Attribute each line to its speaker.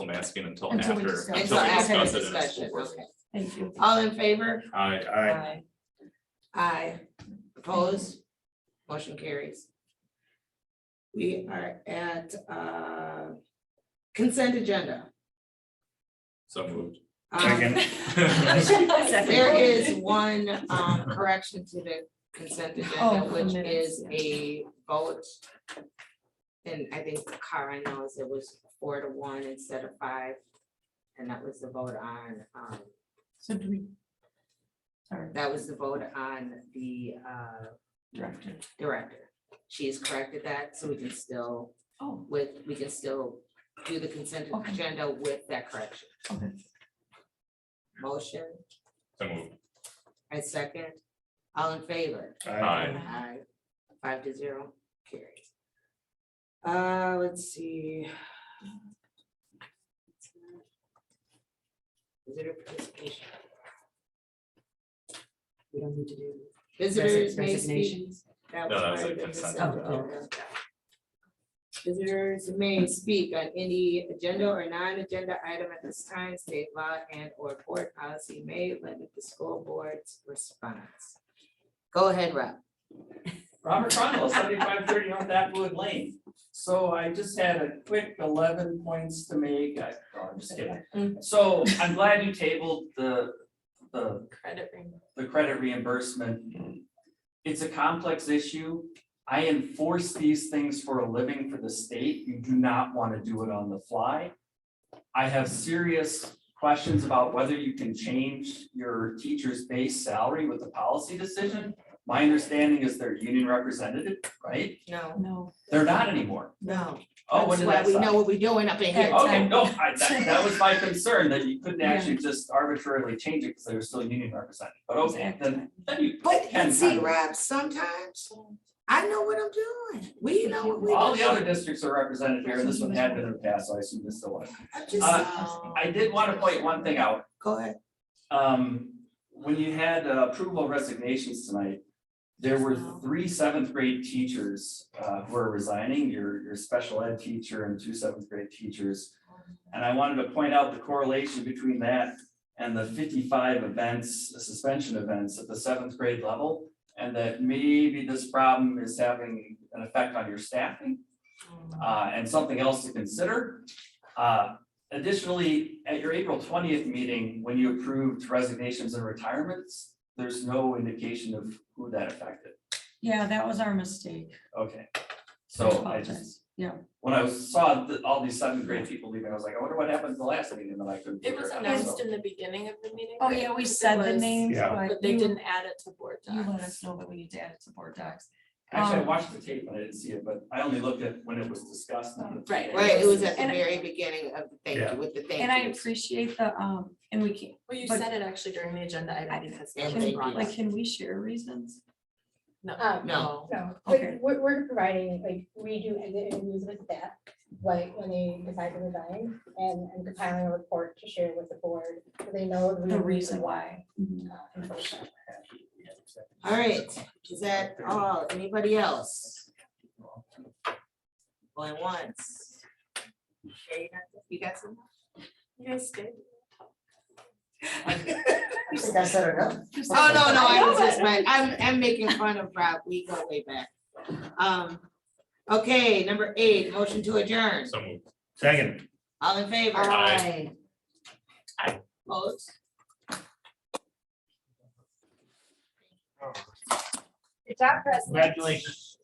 Speaker 1: Lemansky until
Speaker 2: Until we
Speaker 1: after.
Speaker 2: discuss.
Speaker 1: we
Speaker 3: Until after
Speaker 1: discuss
Speaker 3: the
Speaker 1: it in a school
Speaker 3: discussion,
Speaker 1: board.
Speaker 3: okay.
Speaker 2: Thank you.
Speaker 3: All in favor?
Speaker 1: Aye.
Speaker 3: Aye. Aye. Opposed? Motion carries. We are at uh, consent agenda.
Speaker 1: so moved.
Speaker 3: Um,
Speaker 4: Second.
Speaker 3: There is one um, correction to the consent agenda,
Speaker 2: Oh, for
Speaker 3: which
Speaker 2: minutes,
Speaker 3: is a vote. And I think Kara knows it was four to one instead of five. And that was the vote on um,
Speaker 2: So do we? Sorry,
Speaker 3: That was the vote on the uh,
Speaker 2: director.
Speaker 3: director. She has corrected that, so we can still,
Speaker 2: Oh,
Speaker 3: with, we can still do the consent
Speaker 2: Okay.
Speaker 3: agenda with that correction.
Speaker 2: okay.
Speaker 3: Motion
Speaker 1: So moved.
Speaker 3: and second, all in favor?
Speaker 1: Aye.
Speaker 3: Aye. Five to zero, carries. Uh, let's see. Visitor participation.
Speaker 5: We don't need to do
Speaker 3: Visitors
Speaker 5: resi-
Speaker 3: may speak
Speaker 5: resignations.
Speaker 3: That
Speaker 1: No,
Speaker 3: was
Speaker 1: that was
Speaker 3: part
Speaker 1: a
Speaker 3: of the
Speaker 1: consent
Speaker 3: consent
Speaker 5: agenda.
Speaker 3: agenda. Visitors may speak on any agenda or non-agenda item at this time, state law and or board policy may limit the school board's response. Go ahead, Rob.
Speaker 4: Robert Cronwell, seventy-five thirty on Backwood Lane. So I just had a quick eleven points to make. I, no, I'm just kidding. So I'm glad you tabled the, the,
Speaker 3: Credit
Speaker 4: the credit reimbursement. It's a complex issue. I enforce these things for a living for the state. You do not want to do it on the fly. I have serious questions about whether you can change your teacher's base salary with the policy decision. My understanding is they're union representative, right?
Speaker 3: No,
Speaker 2: No.
Speaker 4: They're not anymore.
Speaker 3: no.
Speaker 4: Oh,
Speaker 3: That's
Speaker 4: when did
Speaker 3: why
Speaker 4: that Oh,
Speaker 3: we know
Speaker 4: stop?
Speaker 3: what we're doing up in here.
Speaker 4: Okay, no, I, that, that was my concern, that you couldn't actually just arbitrarily change it because they were still union representative, but okay, Oh, then, then you
Speaker 3: But
Speaker 4: can
Speaker 3: and see,
Speaker 4: kind of-
Speaker 3: Rob, sometimes I know what I'm doing. We know what
Speaker 4: All
Speaker 3: we're
Speaker 4: the
Speaker 3: doing.
Speaker 4: other districts are represented here, and this one had been in the past, so I assume this is the one.
Speaker 3: I'm just
Speaker 4: uh,
Speaker 3: saying.
Speaker 4: I did want to point one thing out,
Speaker 3: Go ahead.
Speaker 4: um, when you had uh, approval resignations tonight, there were three seventh grade teachers, uh, who are resigning, your, your special ed teacher and two seventh grade teachers. And I wanted to point out the correlation between that and the fifty-five events, suspension events at the seventh grade level. And that maybe this problem is having an effect on your staffing uh, and something else to consider. Uh, Additionally, at your April twentieth meeting, when you approved resignations and retirements, there's no indication of who that affected.
Speaker 2: Yeah, that was our mistake.
Speaker 4: Okay,
Speaker 2: I
Speaker 4: so I just,
Speaker 2: apologize. Yeah.
Speaker 4: when I saw the- all these seventh grade people leaving, I was like, I wonder what happened at the last meeting, and then I couldn't.
Speaker 6: It
Speaker 4: figure
Speaker 6: was
Speaker 4: out,
Speaker 6: announced
Speaker 4: so-
Speaker 6: in the beginning of the meeting.
Speaker 2: Oh,
Speaker 6: right?
Speaker 2: yeah, we
Speaker 6: It
Speaker 2: said the
Speaker 6: was,
Speaker 2: names,
Speaker 7: Yeah.
Speaker 2: but
Speaker 6: But they
Speaker 2: you,
Speaker 6: didn't add it to board
Speaker 2: you let
Speaker 6: docs.
Speaker 2: us know that we need to add it to board docs.
Speaker 4: Actually, I
Speaker 2: um,
Speaker 4: watched the tape, but I didn't see it, but I only looked at when it was discussed, not at the
Speaker 6: Right.
Speaker 3: Right, it was at the
Speaker 2: And I-
Speaker 3: very beginning of the thank
Speaker 7: Yeah.
Speaker 3: you, with the thank you.
Speaker 2: And I appreciate the, um, and we can,
Speaker 6: Well, you
Speaker 2: But-
Speaker 6: said it actually during the agenda item because.
Speaker 3: And
Speaker 6: it was
Speaker 3: thank
Speaker 6: brought
Speaker 3: you.
Speaker 2: like,
Speaker 6: up.
Speaker 2: can we share reasons?
Speaker 6: No.
Speaker 8: Um,
Speaker 3: No.
Speaker 8: No,
Speaker 2: Okay.
Speaker 8: but we're, we're providing, like, we do end the interviews with staff, like, when they decide to resign, and I'm compiling a report to share with the board, so they know.
Speaker 2: The reason why. Mhm.
Speaker 8: uh, unfortunately.
Speaker 3: All right, is that all? Anybody else? Going once? Okay, You got some?
Speaker 6: You guys did.
Speaker 3: That's it Oh, no, no, I was just, right. I'm, I'm making fun of Rob. We go way back. Um, okay, number eight, motion to adjourn.
Speaker 1: So moved.
Speaker 7: Second.
Speaker 3: All in favor?
Speaker 1: Aye.
Speaker 3: Opposed?
Speaker 8: Good job, President.
Speaker 7: Congratulations.